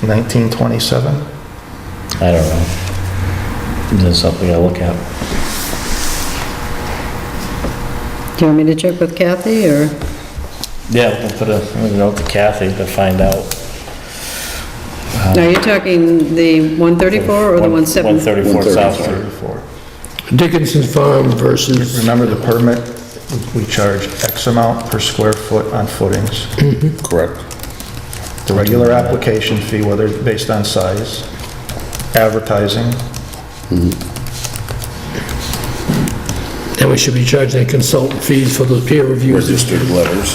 1927? I don't know. Is that something I look at? Do you want me to check with Kathy, or? Yeah, we'll put a a note to Kathy to find out. Uh, Are you talking the 134 or the 170? 134 South Street. Dickinson Farm versus, Remember the permit, we charge X amount per square foot on footings. Mm-hmm. Correct. The regular application fee, whether it's based on size, advertising, and we should be charging consultant fees for those peer reviews. Registered letters.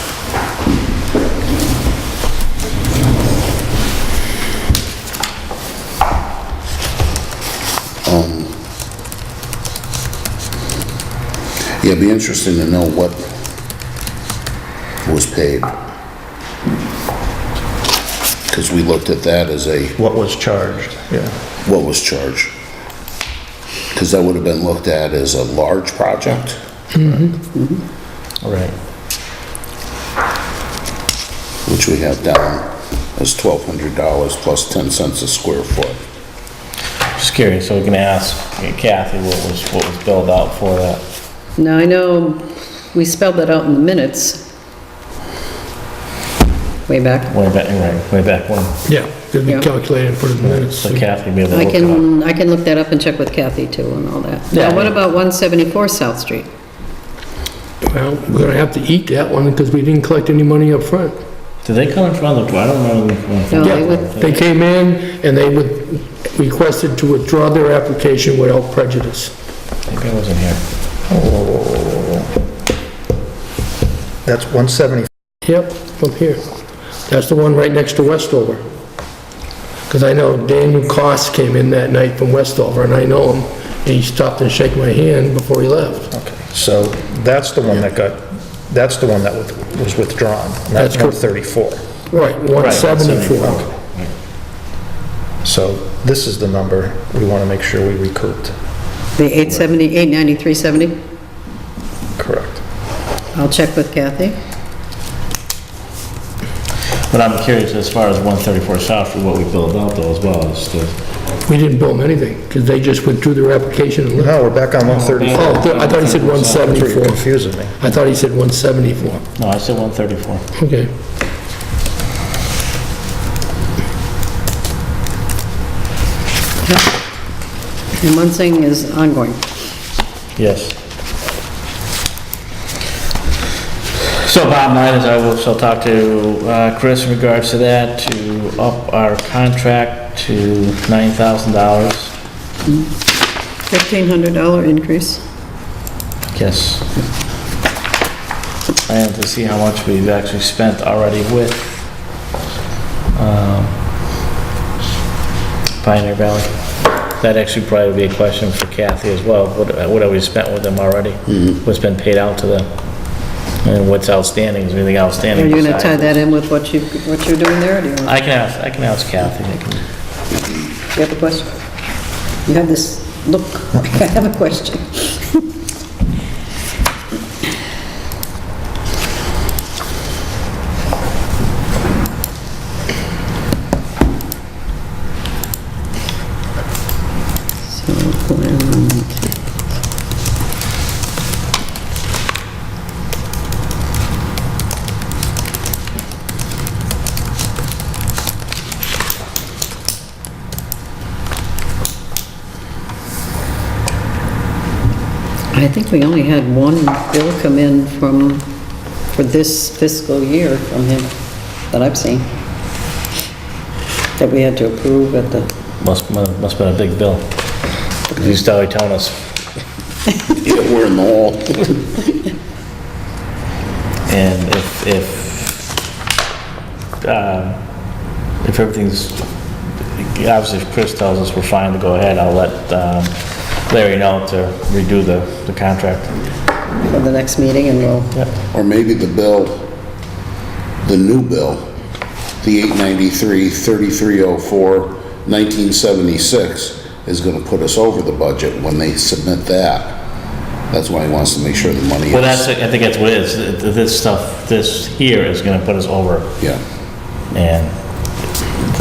Um, Yeah, it'd be interesting to know what was paid. Because we looked at that as a, what was charged, yeah. what was charged. Because that would have been looked at as a large project. Right. which we have down as $1,200 plus 10 cents a square foot. Just curious, so we can ask Kathy what was, what was billed out for that. Now, I know we spelled that out in the minutes. Way back. Way back, right, way back when. Yeah, because we Yeah. calculated and put it in minutes. So Kathy may be able to I look it up. can, I can look that up and check with Kathy, too, and all that. Yeah. Now, what about 174 South Street? Well, we're gonna have to eat that one because we didn't collect any money up front. Did they come in front of the, I don't remember. them coming in front No, of they the- would- They came in and they would- requested to withdraw their application without prejudice. Maybe I wasn't here. That's 170, Yep, from here. That's the one right next to Westover. Because I know Daniel Cost came in that night from Westover, and I know him, and he stopped and shook my hand before he left. okay. So that's the one that got, that's the one that was- was withdrawn, not That's correct. 134. Right, 174. 174. So this is the number we want to make sure we recouped. The 870, 893, 70? Correct. I'll check with Kathy. But I'm curious as far as 134 South Street, what we billed out though as well, is the, We didn't bill them anything, because they just withdrew their application and left. No, we're back on 134. Oh, I thought he said That's where you're 174. confusing me. I thought he said 174. no, I said 134. Okay. And one thing is ongoing. Yes. So bottom line is I will, shall talk to uh, Chris in regards to that, to up our contract to $9,000. $1,500 increase. Yes. And to see how much we've actually spent already with um, Pioneer Valley. That actually probably would be a question for Kathy as well. What what have we spent with them already? Mm-hmm. What's been paid out to them? And what's outstanding? Is there anything Are outstanding you gonna besides- tie that in with what you, what you're doing there, or do you want, I can ask, I can ask Kathy. I can- you have a question? You have this look, I have a question. So, and I think we only had one bill come in from, for this fiscal year from him, that I've seen, that we had to approve at the Must, must have been a big bill. He's already telling us, Yeah, we're in the hole. and if, if, um, if everything's, obviously if Chris tells us we're fine to go ahead, I'll let um, Larry know to redo the, the contract. for the next meeting, and we'll, Or maybe the bill, the new bill, the 893, 3304, 1976 is going to put us over the budget when they submit that. That's why he wants to make sure the money is. Well, that's, I think that's what it is, Th- th- this stuff, this here is gonna put us over, Yeah, and